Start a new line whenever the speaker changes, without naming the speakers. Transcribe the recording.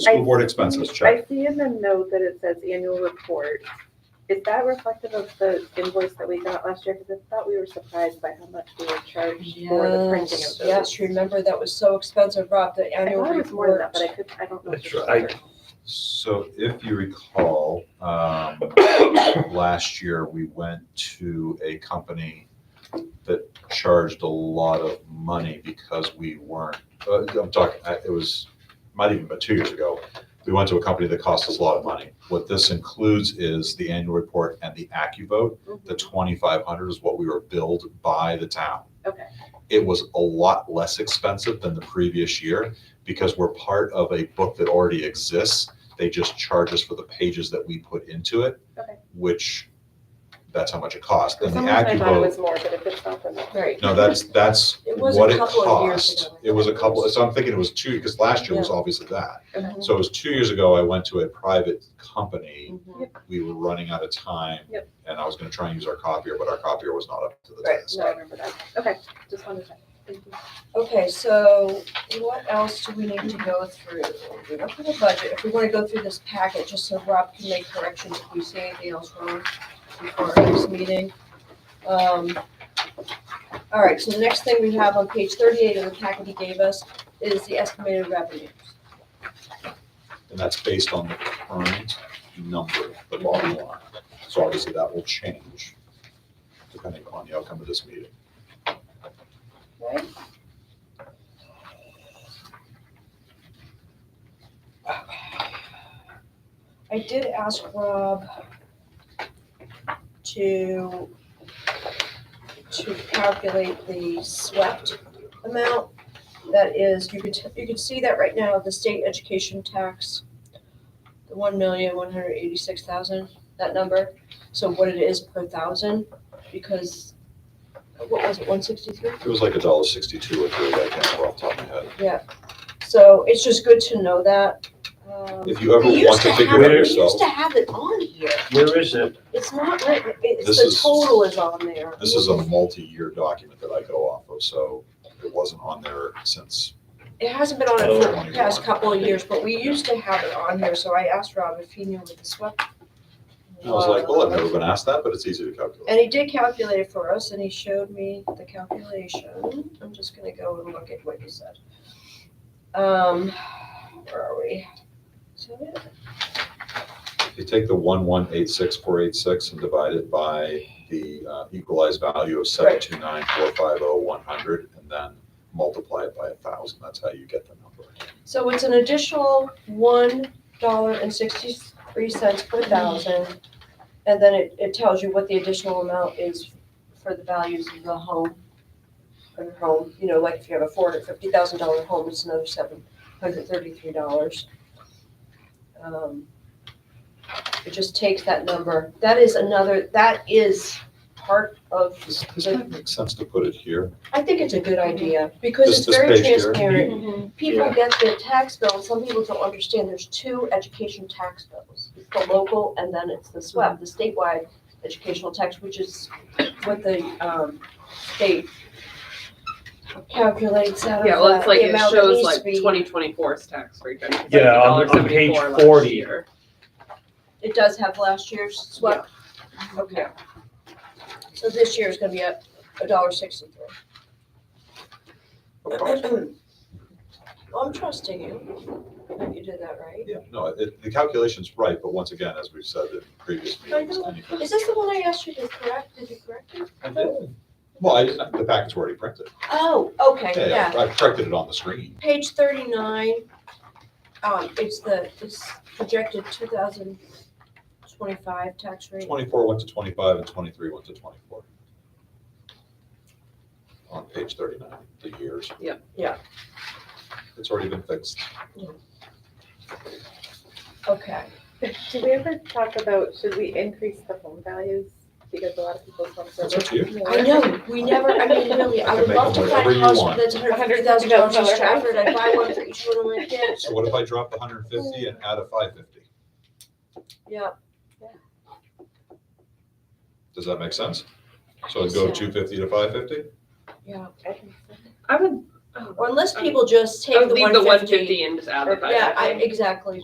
School board expenses,
Mm, I
check.
see in the note that it says annual report. Is that reflective of the invoice that we got last year? Because I thought we were surprised by how much we were charged for the printing of
Yes,
those.
yes, remember that was so expensive, Rob, the
I
annual
thought it was more than
report.
that, but I could, I don't know.
That's
for sure.
right.
So if you recall, um, last year, we went to a company that charged a lot of money because we weren't, uh, I'm talking, I- it was, might even been two years ago. We went to a company that cost us a lot of money. What this includes is the annual report and the AccuVote.
Mm-hmm.
The
Mm-hmm.
twenty-five hundred is what we were billed by the town.
Okay.
It was a lot less expensive than the previous year because we're part of a book that already exists. They just charge us for the pages that we put into it.
Okay.
Which, that's how much it cost.
For
And the
some reason, I thought it
AccuVote,
was more, but if it's not, then that's.
Right.
no, that's, that's
It was a
what it
couple of years
cost.
ago.
It was a couple, so I'm thinking it was two, because last year was obviously that. So it was two years ago, I went to a private company.
Mhm.
We were running out of time.
Yep.
And I was gonna try and use our copier, but our copier was not up to the
Right,
task.
no, I remember that. Okay, just wanted to check. Thank you.
Okay, so what else do we need to go through? We went through the budget, if we wanna go through this packet, just so Rob can make corrections if we see anything else wrong before our next meeting. Um, all right, so the next thing we have on page thirty-eight of the packet he gave us is the estimated revenues.
And that's based on the current number, the bottom line. So obviously that will change depending upon the outcome of this meeting.
Right? I did ask Rob to, to calculate the swept amount. That is, you could, you could see that right now, the state education tax, the one million, one hundred eighty-six thousand, that number. So what it is per thousand, because, what was it, one sixty-three?
It was like a dollar sixty-two or three, I can't remember off the top of my head.
So it's just good to know that. Um,
If you ever
we used
want to
have
figure it out
it- We
yourself,
used to have it on here.
Where is it?
It's not written, it's
This
the
is-
total is on there.
this is a multi-year document that I go off of, so it wasn't on there since.
It hasn't been on it for
Oh.
the past couple of years, but we used to have it on here, so I asked Rob if he knew what the swept.
I was like, well, I've never been asked that, but it's easy to calculate.
And he did calculate it for us and he showed me the calculation. I'm just gonna go and look at what he said. Um, where are we? Is that it?
If you take the one-one-eight-six-four-eight-six and divide it by the uh, equalized value of seven-two-nine-four-five-oh-one-hundred, oh and then multiply it by a thousand, that's how you get the number.
So it's an additional one dollar and sixty-three cents per thousand. And then it, it tells you what the additional amount is for the values of the home. Of your home, you know, like if you have a four hundred fifty thousand dollar home, it's another seven hundred thirty-three dollars. Um, It just takes that number. That is another, that is part of,
Does does that make sense to put it here?
I think it's a good idea because
This-
it's
this
very
page here.
transparent
Mm-hmm.
people get their tax bill, and some people don't understand, there's two education tax bills. It's the local and then it's the SWEB, the statewide educational tax, which is what the, um, state calculates out of
Yeah, well,
uh,
it's like,
the
it
amount that
shows
needs
like
to be-
2024's tax rate. right? It's
Yeah, on-
like
on page
$1.74 last
40.
year.
It does have last year's SWEB, okay. So this year's gonna be up a dollar sixty-three. I'm trusting you, that you did that right.
Yeah, no, it, the calculation's right, but once again, as we've said in previous meetings, anything.
Is this the one I asked you to correct, did you correct it?
I did. Well, I, didn't- the packet's already printed.
Oh, okay,
Yeah,
yeah.
yeah, I corrected it on the screen.
Page thirty-nine, um, it's the, it's projected two thousand twenty-five tax rate.
Twenty-four went to twenty-five and twenty-three went to twenty-four. On page thirty-nine, the years.
Yeah.
Yeah.
It's already been fixed.
Okay,
Did we ever talk about, should we increase the home values? Because a lot of people's homes are.
That's up to you.
worth more.
I know, we never, I mean, really, I
You can
would
make
love
them
to find
whatever
a
you
house
want.
that's hundred fifty thousand dollars in
$150,000
Stratford, I'd buy one for each one of my kids.
So what if I drop the hundred and fifty and add a five fifty?
Yeah,
Does that make sense? So I'd go
Yeah.
two fifty to five fifty?
yeah,
I think so.
I would
Or unless people just take
Oh,
the
leave the
one
one
fifty. Oh,
fifty and just add the five.
Yeah, I,
I think.
exactly.